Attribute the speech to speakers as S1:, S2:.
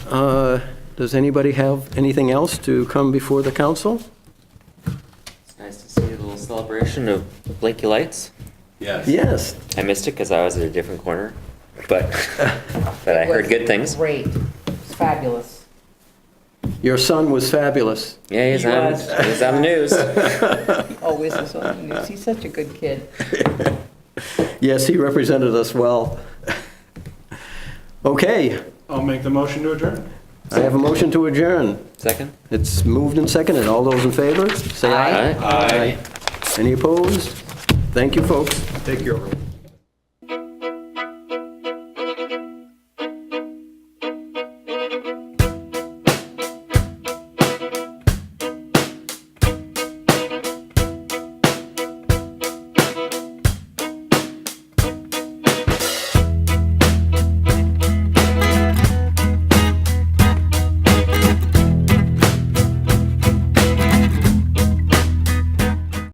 S1: Uh, Does anybody have anything else to come before the council?
S2: It's nice to see a little celebration of blinky lights.
S1: Yes,
S2: I missed it because I was at a different corner, but, but I heard good things.
S3: Great, it's fabulous.
S1: your son was fabulous.
S2: Yeah, he's on,
S3: Yes.
S2: he's on the news.
S3: He Always is on the news, he's such a good kid.
S1: Yes, he represented us well. Okay,
S4: I'll make the motion to adjourn.
S1: I have a motion to adjourn.
S2: Second?
S1: It's moved and seconded. All those in favor, say aye.
S2: Aye.
S1: Any opposed? Thank you, folks.
S4: Take your.